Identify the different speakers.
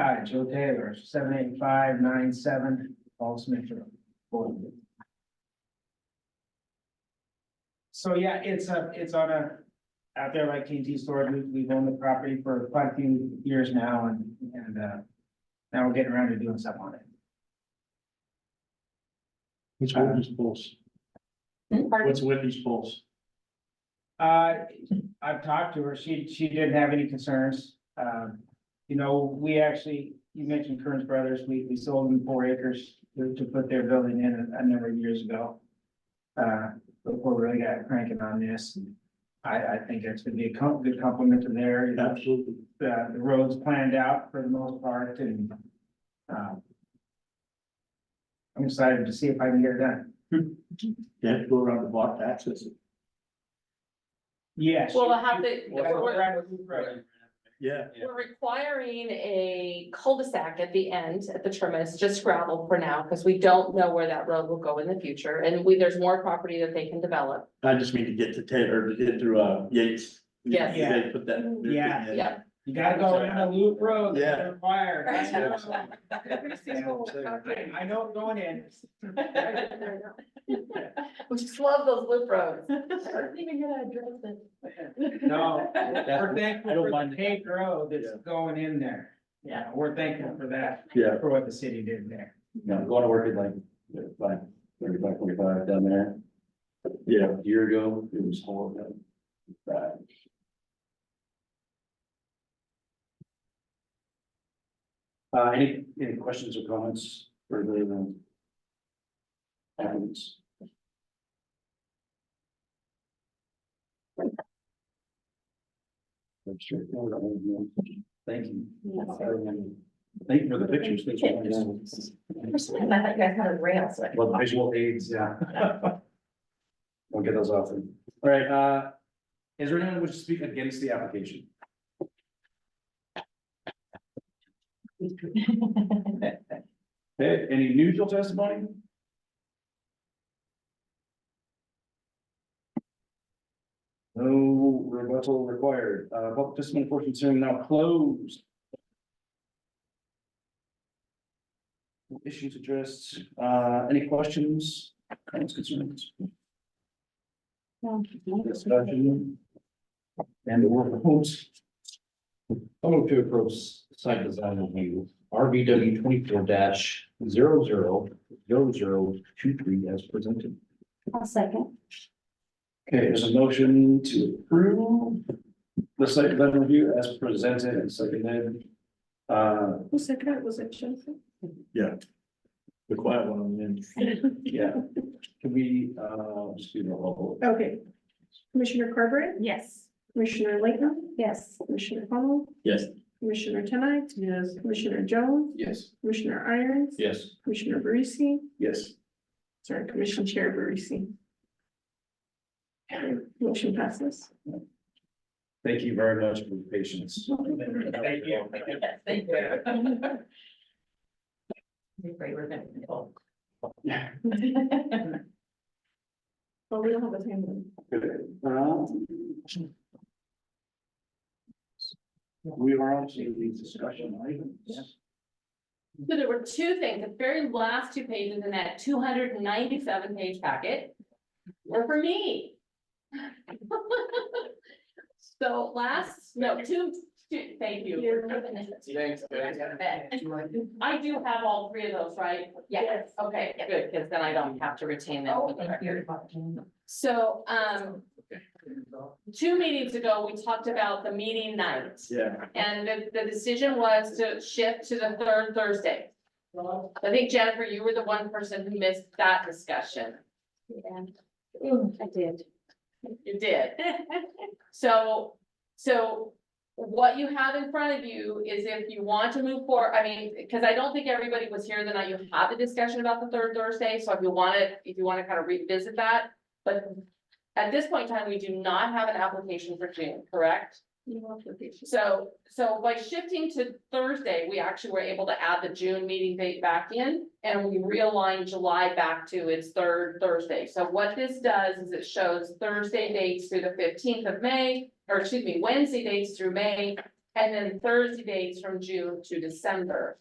Speaker 1: Five, Joe Taylor, seven eight five nine seven, Paul Smith Road. Boulder. So yeah, it's a, it's on a, out there like T store, we, we've owned the property for quite a few years now and, and, uh, now we're getting around to doing something on it.
Speaker 2: What's
Speaker 3: Uh,
Speaker 2: Whitney's Pulse? What's Whitney's Pulse?
Speaker 1: Uh, I've talked to her, she, she didn't have any concerns, um, you know, we actually, you mentioned Kearns Brothers, we, we sold them four acres to, to put their building in a, a number of years ago. Uh, before we really got cranking on this, I, I think it's gonna be a com- good compliment to their, uh,
Speaker 2: Absolutely.
Speaker 1: the, the roads planned out for the most part and, um. I'm excited to see if I can get it done.
Speaker 2: You have to go around the block to access it.
Speaker 1: Yes.
Speaker 3: Well, we'll have to, we're,
Speaker 1: Right.
Speaker 2: Yeah.
Speaker 3: we're requiring a cul-de-sac at the end, at the terminus, just gravel for now, because we don't know where that road will go in the future, and we, there's more property that they can develop.
Speaker 2: I just mean to get to Taylor, to get through, uh, Yates.
Speaker 3: Yes.
Speaker 1: Yeah.
Speaker 2: They Put that. new thing
Speaker 1: Yeah.
Speaker 2: in.
Speaker 3: Yeah.
Speaker 1: You gotta go around a loop road. that's
Speaker 2: Yeah.
Speaker 1: Required. I know.
Speaker 2: Yeah.
Speaker 1: I know it going in.
Speaker 3: We just love those loop roads.
Speaker 1: No, we're
Speaker 2: That's-
Speaker 1: thankful
Speaker 2: I don't
Speaker 1: for the
Speaker 2: mind.
Speaker 1: paved road that's
Speaker 2: Yeah.
Speaker 1: going in there. Yeah, we're thankful for that,
Speaker 2: Yeah,
Speaker 1: for what the city did there.
Speaker 4: Yeah, going to work at like, like, thirty-five, forty-five down there,
Speaker 2: yeah.
Speaker 4: a year ago, it was horrible. Bad. Uh, any, any questions or comments for the, uh, applicants? That's true. Thank you. Thank you for the pictures. Thanks for having us.
Speaker 3: I thought you guys had a rail, so.
Speaker 4: Well, visual aids, yeah. We'll get those often. All right, uh, is there anyone who would speak against the application? Okay, any neutral testimony? No rebuttal required. Uh, public testimony portion is hearing now closed. No Issues addressed. Uh, any questions, comments, concerns? Discussion. And the work proposed.
Speaker 5: I'll move to approve site design review, RBW twenty-four 0 zero zero zero zero two three as presented.
Speaker 6: I'll second.
Speaker 4: Okay, there's a motion to approve the site plan review as presented and seconded. Uh,
Speaker 6: Who seconded it? Was it Jennifer?
Speaker 2: The quiet one on the end.
Speaker 4: yeah, can we, uh, just do the whole,
Speaker 6: Okay. Commissioner Carberry? Yes. Commissioner Layton? Yes. Commissioner Connell?
Speaker 2: Yes.
Speaker 6: Commissioner Tennant? Yes. Commissioner Jones?
Speaker 4: yes,
Speaker 6: Commissioner Irons?
Speaker 2: Yes.
Speaker 6: Commissioner Barisi?
Speaker 4: yes.
Speaker 6: Sorry, Commission Chair Barisi. Motion passes.
Speaker 4: Thank you very much for your patience.
Speaker 1: Thank you.
Speaker 3: Thank you. Great, we're gonna.
Speaker 4: Yeah.
Speaker 6: Well, we don't have a time.
Speaker 4: We are on to the discussion items.
Speaker 3: So there were two things, the very last two pages in that two hundred and ninety-seven page packet were for me. So last, no, two, two, thank you. Thanks. I do have all three of those, right? Yes. Okay, good, because then I don't have to retain them. So, um, two meetings ago, we talked about the meeting night.
Speaker 2: Yeah.
Speaker 3: And the, the decision was to shift to the third Thursday. I think Jennifer, you were the one person who missed that discussion.
Speaker 6: I did.
Speaker 3: You did. So, so what you have in front of you is if you want to move forward, I mean, because I don't think everybody was here the night you had the discussion about the third Thursday, so if you want to, if you want to kind of revisit that, but at this point in time, we do not have an application for June, correct? So, so by shifting to Thursday, we actually were able to add the June meeting date back in, and we realigned July back to its third Thursday. So what this does is it shows Thursday dates through the fifteenth of May, or excuse me, Wednesday dates through May, and then Thursday days from June to December.